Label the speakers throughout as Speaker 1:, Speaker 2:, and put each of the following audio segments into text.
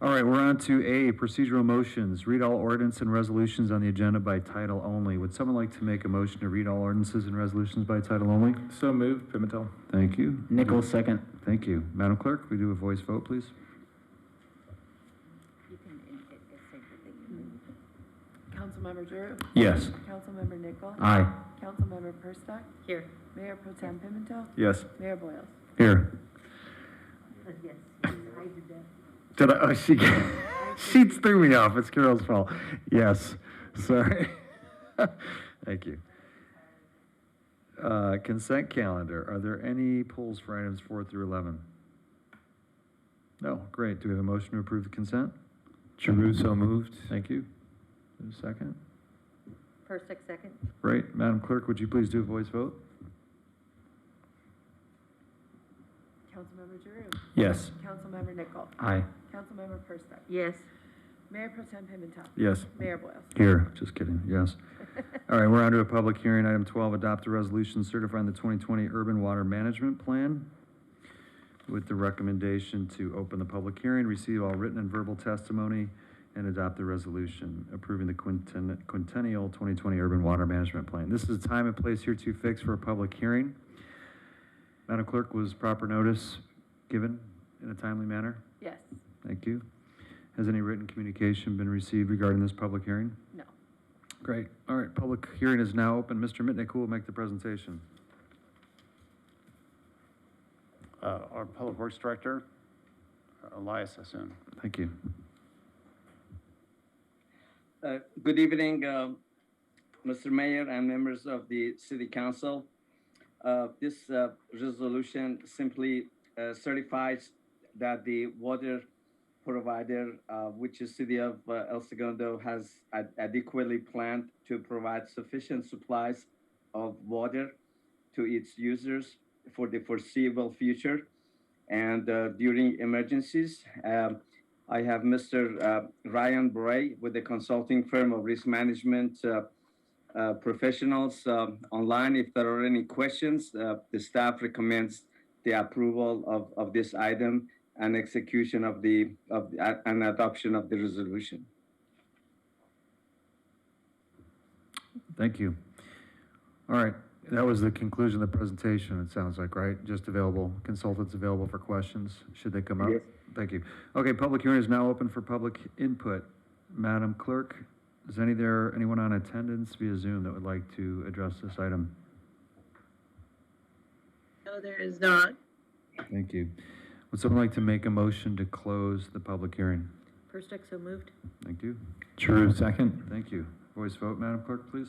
Speaker 1: All right, we're on to A, procedural motions. Read all ordinance and resolutions on the agenda by title only. Would someone like to make a motion to read all ordinances and resolutions by title only?
Speaker 2: So moved, Pimentel.
Speaker 1: Thank you.
Speaker 3: Nichols,
Speaker 4: Mm-hmm.
Speaker 3: second.
Speaker 1: Thank you. Madam Clerk, we do a voice vote, please?
Speaker 5: Councilmember Drew,
Speaker 1: Yes.
Speaker 5: Councilmember Nichol,
Speaker 1: Aye.
Speaker 5: Councilmember Perstuck,
Speaker 6: Here.
Speaker 5: Mayor Pro Tem Pimentel,
Speaker 2: Yes.
Speaker 5: Mayor Boyles.
Speaker 1: Here.
Speaker 6: Yes, I did that.
Speaker 1: Did I, oh, she, she threw me off. It's Carol's fault. Yes, sorry. Thank you. Uh, consent calendar. Are there any polls for items four through 11? No, great. Do we have a motion to approve the consent?
Speaker 2: Jeruso moved.
Speaker 1: Thank you. Is there a second?
Speaker 6: Persick, second.
Speaker 1: Great. Madam Clerk, would you please do a voice vote?
Speaker 5: Councilmember Drew,
Speaker 1: Yes.
Speaker 5: Councilmember Nichol,
Speaker 1: Aye.
Speaker 5: Councilmember Perstuck,
Speaker 6: Yes.
Speaker 5: Mayor Pro Tem Pimentel,
Speaker 2: Yes.
Speaker 5: Mayor Boyles.
Speaker 1: Here, just kidding, yes. All right, we're on to a public hearing. Item 12, adopt a resolution certifying the 2020 Urban Water Management Plan with the recommendation to open the public hearing, receive all written and verbal testimony, and adopt the resolution approving the quinten- quintennial 2020 Urban Water Management Plan. This is a time and place here to fix for a public hearing. Madam Clerk, was proper notice given in a timely manner?
Speaker 5: Yes,
Speaker 1: Thank you. Has any written communication been received regarding this public hearing?
Speaker 5: no.
Speaker 1: Great. All right, public hearing is now open. Mr. Mitnick, who will make the presentation?
Speaker 4: Uh, Our Public Works Director, uh, Elias Hassoun.
Speaker 1: Thank you.
Speaker 7: Uh, Good evening, uh, Mr. Mayor and members of the City Council. Uh, This uh, resolution simply uh, certifies that the water provider, uh, which is City of uh, El Segundo, has ad- adequately planned to provide sufficient supplies of water to its users for the foreseeable future and uh, during emergencies. Um, I have Mr. uh, Ryan Bray with the consulting firm of risk management uh, uh, professionals um, online. If there are any questions, uh, the staff recommends the approval of, of this item and execution of the, of the, uh, and adoption of the resolution.
Speaker 1: Thank you. All right, that was the conclusion of the presentation, it sounds like, right? Just available, consultants available for questions, should they come up?
Speaker 7: Yes.
Speaker 1: Thank you. Okay, public hearing is now open for public input. Madam Clerk, is any there, anyone on attendance via Zoom that would like to address this item?
Speaker 6: No, there is not.
Speaker 1: Thank you. Would someone like to make a motion to close the public hearing?
Speaker 6: Persick, so moved.
Speaker 1: Thank you.
Speaker 2: True. second.
Speaker 1: Thank you. Voice vote, Madam Clerk, please.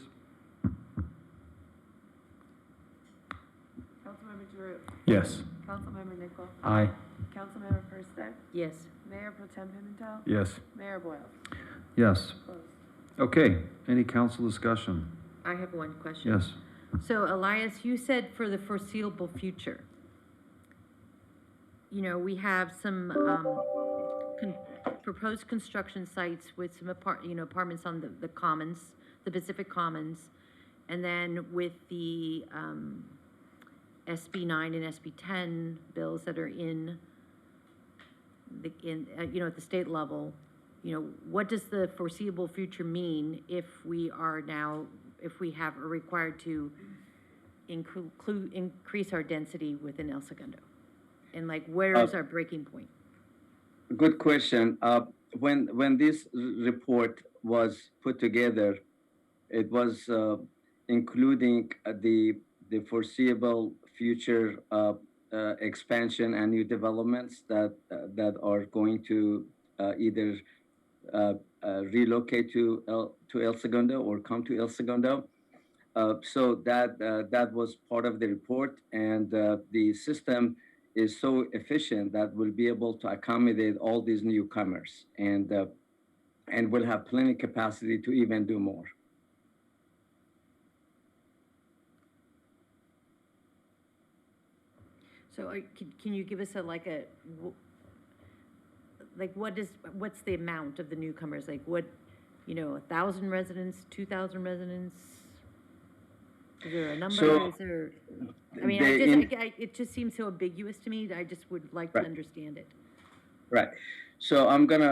Speaker 5: Councilmember Drew,
Speaker 2: Yes.
Speaker 5: Councilmember Nichol,
Speaker 2: Aye.
Speaker 5: Councilmember Perstuck,
Speaker 6: Yes.
Speaker 5: Mayor Pro Tem Pimentel,
Speaker 2: Yes.
Speaker 5: Mayor Boyles.
Speaker 1: Yes.
Speaker 5: Closed.
Speaker 1: Okay, any council discussion?
Speaker 6: I have one question.
Speaker 1: Yes.
Speaker 6: So Elias, you said for the foreseeable future. You know, we have some, um, con- proposed construction sites with some apart, you know, apartments on the, the commons, the Pacific Commons. And then with the, um, SB nine and SB ten bills that are in the, in, uh, you know, at the state level, you know, what does the foreseeable future mean if we are now, if we have, are required to include, increase our density within El Segundo? And like, where is our breaking point?
Speaker 7: Good question. Uh, when when this r- report was put together, it was uh, including uh, the the foreseeable future uh, uh, expansion and new developments that uh, that are going to uh, either uh, uh, relocate to El, to El Segundo or come to El Segundo. Uh, so that uh, that was part of the report, and uh, the system is so efficient that we'll be able to accommodate all these newcomers, and uh, and we'll have plenty capacity to even do more.
Speaker 6: So are, can, can you give us a, like a, wh- like what is, what's the amount of the newcomers? Like what, you know, a thousand residents, two thousand residents? Is there a number,
Speaker 7: So,
Speaker 6: is there, I mean, I
Speaker 7: they
Speaker 6: just, I
Speaker 7: in-
Speaker 6: g- I, it just seems so ambiguous to me, that I just would like to
Speaker 7: Right.
Speaker 6: understand it.
Speaker 7: Right. So I'm gonna